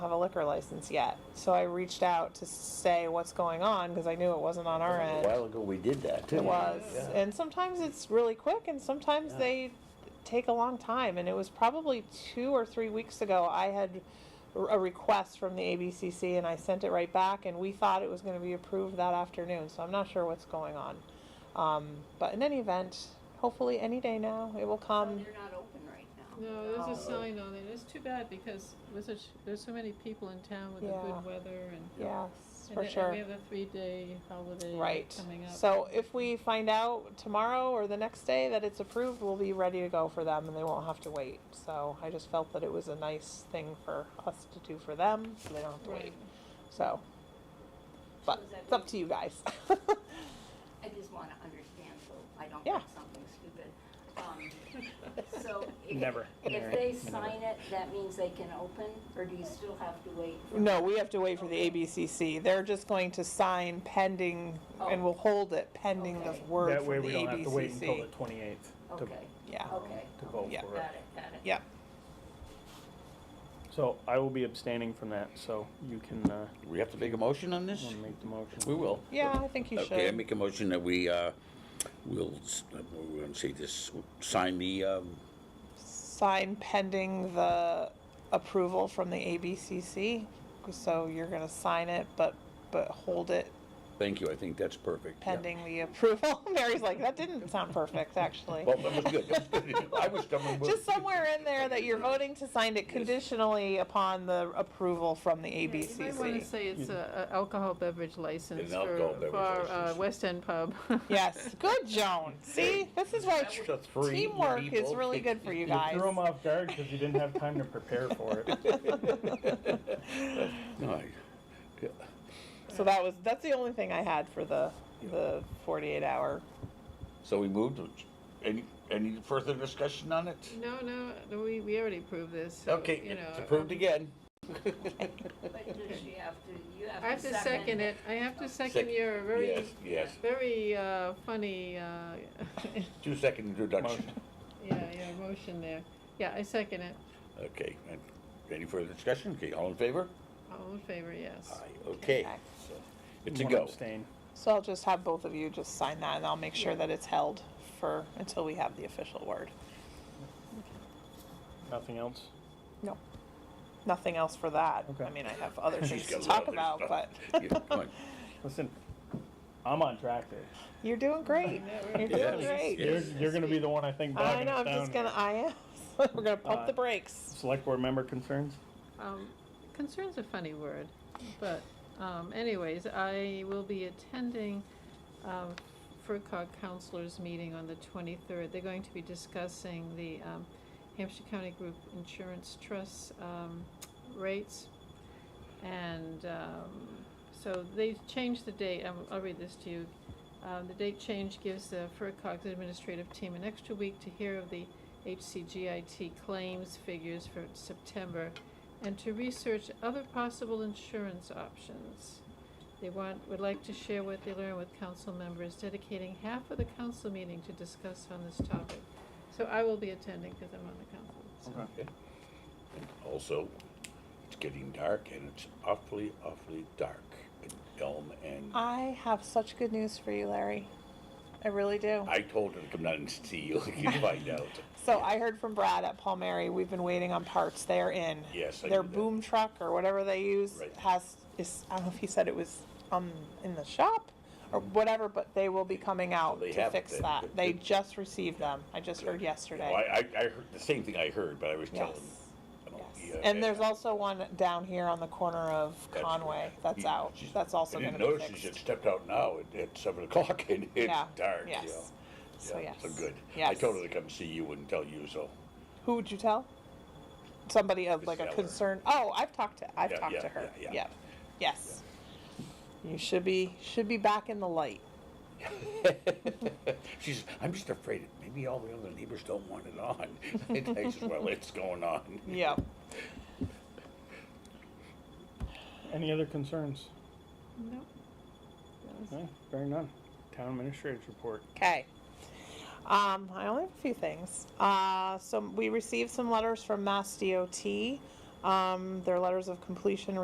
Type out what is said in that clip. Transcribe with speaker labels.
Speaker 1: have a liquor license yet. So I reached out to say what's going on because I knew it wasn't on our
Speaker 2: A
Speaker 1: end.
Speaker 2: while ago, we did that too.
Speaker 1: It was,
Speaker 2: Yeah.
Speaker 1: and sometimes it's really quick, and sometimes
Speaker 2: Yeah.
Speaker 1: they take a long time. And it was probably two or three weeks ago. I had r- a request from the ABCC, and I sent it right back, and we thought it was going to be approved that afternoon. So I'm not sure what's going on. Um, but in any event, hopefully any day now it will
Speaker 3: So
Speaker 1: come.
Speaker 3: They're not open right now. Um,
Speaker 4: No, there's a
Speaker 1: Oh.
Speaker 4: sign on it. It's too bad because with such, there's so many people in town with the
Speaker 1: Yeah.
Speaker 4: good weather and.
Speaker 1: Yes,
Speaker 4: and
Speaker 1: for
Speaker 4: then- and
Speaker 1: sure.
Speaker 4: we have a three-day holiday
Speaker 1: Right.
Speaker 4: coming up.
Speaker 1: So if we find out tomorrow or the next day that it's approved, we'll be ready to go for them and they won't have to wait. So I just felt that it was a nice thing for us to do for them, so they don't have to
Speaker 4: Right.
Speaker 1: wait. So, but
Speaker 3: So does that
Speaker 1: it's up
Speaker 3: mean-
Speaker 1: to you guys.
Speaker 3: I just wanna understand, so I don't
Speaker 1: Yeah.
Speaker 3: make something stupid. Um, So. if-
Speaker 5: Never.
Speaker 3: If they sign it, that means they can open, or do you still have to wait? for-
Speaker 1: No, we have to wait for the ABCC. They're just going to sign pending and
Speaker 3: Oh.
Speaker 1: we'll hold it pending the
Speaker 3: Okay.
Speaker 1: word
Speaker 5: That
Speaker 1: from
Speaker 5: way
Speaker 1: the
Speaker 5: we don't have to wait until the
Speaker 1: ABCC.
Speaker 5: twenty-eighth to,
Speaker 3: Okay,
Speaker 1: Yeah,
Speaker 3: okay.
Speaker 5: to vote
Speaker 1: Yeah.
Speaker 5: for it.
Speaker 3: Got it, got it.
Speaker 1: yeah.
Speaker 5: So I will be abstaining from that, so you can, uh,
Speaker 2: We have to make a motion on this?
Speaker 5: wanna make the motion.
Speaker 2: We will.
Speaker 1: Yeah, I think you
Speaker 2: Okay, I
Speaker 1: should.
Speaker 2: make a motion that we, uh, will, s- uh, we're gonna say this, sign the, um,
Speaker 1: sign pending the approval from the ABCC. So you're gonna sign it, but, but hold it
Speaker 2: thank you, I think that's perfect. yeah.
Speaker 1: pending the approval. Mary's like, that didn't sound perfect, actually.
Speaker 2: Well, that was good, that was good. I was done with.
Speaker 1: Just somewhere in there that you're voting to sign it conditionally upon the approval from the
Speaker 4: Yeah, You might wanna
Speaker 1: ABCC.
Speaker 4: say it's a a alcohol beverage license
Speaker 2: alcohol
Speaker 4: for,
Speaker 2: beverage
Speaker 4: for our
Speaker 2: license.
Speaker 4: West End pub.
Speaker 1: Yes, good, Joan. See, this is why tr- teamwork is really good for you
Speaker 5: You
Speaker 1: guys.
Speaker 5: threw him off guard because you didn't have time to prepare for it.
Speaker 2: Aye. Yeah.
Speaker 1: So that was, that's the only thing I had for the, the forty-eight hour.
Speaker 2: So we moved, any, any further discussion on it?
Speaker 4: No, no, no, we, we already approved this, so,
Speaker 2: Okay,
Speaker 4: you know. uh,
Speaker 2: it's approved again.
Speaker 3: But does she have to, you have to second?
Speaker 4: I have to second it. I have to second
Speaker 2: Second.
Speaker 4: your very,
Speaker 2: Yes, yes,
Speaker 4: very uh, funny, uh, yeah,
Speaker 2: two second introduction.
Speaker 5: Motion.
Speaker 4: yeah, motion there. Yeah, I second it.
Speaker 2: Okay, and any further discussion? Okay, all in favor?
Speaker 4: All in favor, yes.
Speaker 2: Aye, okay.
Speaker 1: Okay.
Speaker 2: So It's a
Speaker 5: One
Speaker 2: go.
Speaker 5: Abstain.
Speaker 1: So I'll just have both of you just sign that and I'll make sure that it's held for, until we have the official word.
Speaker 5: Nothing else?
Speaker 1: No. Nothing else for that. I
Speaker 5: Okay.
Speaker 1: mean, I have other things
Speaker 2: She's
Speaker 1: to
Speaker 2: got a lot
Speaker 1: talk
Speaker 2: of
Speaker 1: about,
Speaker 2: stuff.
Speaker 1: but
Speaker 2: Yeah, come on.
Speaker 5: Listen, I'm on track there.
Speaker 1: you're doing great. You're doing
Speaker 2: Yes,
Speaker 1: great.
Speaker 5: You're, you're gonna be the one, I think,
Speaker 1: I
Speaker 5: bogging
Speaker 1: know,
Speaker 5: us
Speaker 1: I'm
Speaker 5: down.
Speaker 1: just gonna,
Speaker 5: here.
Speaker 1: I am. We're gonna pump the
Speaker 5: Uh,
Speaker 1: brakes.
Speaker 5: Select board member concerns?
Speaker 4: Um, concern's a funny word, but, um, anyways, I will be attending, um, FERCog counselors meeting on the twenty-third. They're going to be discussing the, um, Hampshire County Group Insurance Trust, um, rates. And, um, so they changed the date, I'll, I'll read this to you. Um, the date change gives the FERCog's administrative team an extra week to hear of the HCGIT claims figures for September and to research other possible insurance options. They want, would like to share what they learn with council members, dedicating half of the council meeting to discuss on this topic. So I will be attending because I'm on the council, so.
Speaker 2: Okay. And Also, it's getting dark and it's awfully, awfully dark in Elm and
Speaker 1: I have such good news for you, Larry. I really do.
Speaker 2: I told her to come down and see you, you find out.
Speaker 1: So I heard from Brad at Palmieri, we've been waiting on parts, they're in.
Speaker 2: Yes, I
Speaker 1: Their
Speaker 2: knew that.
Speaker 1: boom truck or whatever they use
Speaker 2: Right.
Speaker 1: has, is, I don't know if he said it was, um, in the shop or whatever, but they will be coming out
Speaker 2: they
Speaker 1: to
Speaker 2: have
Speaker 1: fix
Speaker 2: them.
Speaker 1: that. They just received them, I just heard
Speaker 2: Well,
Speaker 1: yesterday.
Speaker 2: I, I, I heard, the same thing I heard, but I was telling.
Speaker 1: Yes,
Speaker 2: you know,
Speaker 1: yes.
Speaker 2: yeah,
Speaker 1: And there's also one down here on the corner of
Speaker 2: right.
Speaker 1: Conway, that's
Speaker 2: He-
Speaker 1: out,
Speaker 2: she's-
Speaker 1: that's also
Speaker 2: I
Speaker 1: gonna
Speaker 2: didn't
Speaker 1: be
Speaker 2: notice, she
Speaker 1: fixed.
Speaker 2: had stepped out now at, at seven o'clock and it's
Speaker 1: Yeah,
Speaker 2: dark, you know.
Speaker 1: Yes, so
Speaker 2: Yeah,
Speaker 1: yes.
Speaker 2: So good. I
Speaker 1: Yes.
Speaker 2: told her to come see you and tell you so.
Speaker 1: Who would you tell? Somebody of
Speaker 2: Miss
Speaker 1: like a
Speaker 2: Eller.
Speaker 1: concern. Oh, I've talked to I've
Speaker 2: Yeah,
Speaker 1: talked
Speaker 2: yeah,
Speaker 1: to her.
Speaker 2: yeah,
Speaker 1: Yeah,
Speaker 2: yeah.
Speaker 1: Yes. You should be should be back in the light.
Speaker 2: She says, I'm just afraid that maybe all the other neighbors don't want it on. And I says, well, it's going on.
Speaker 1: Yep.
Speaker 5: Any other concerns?
Speaker 4: Nope.
Speaker 5: No, bearing none. Town administrator's report.
Speaker 1: Okay. Um, I only have a few things. Uh, so we received some letters from Mass DOT Um, their letters of completion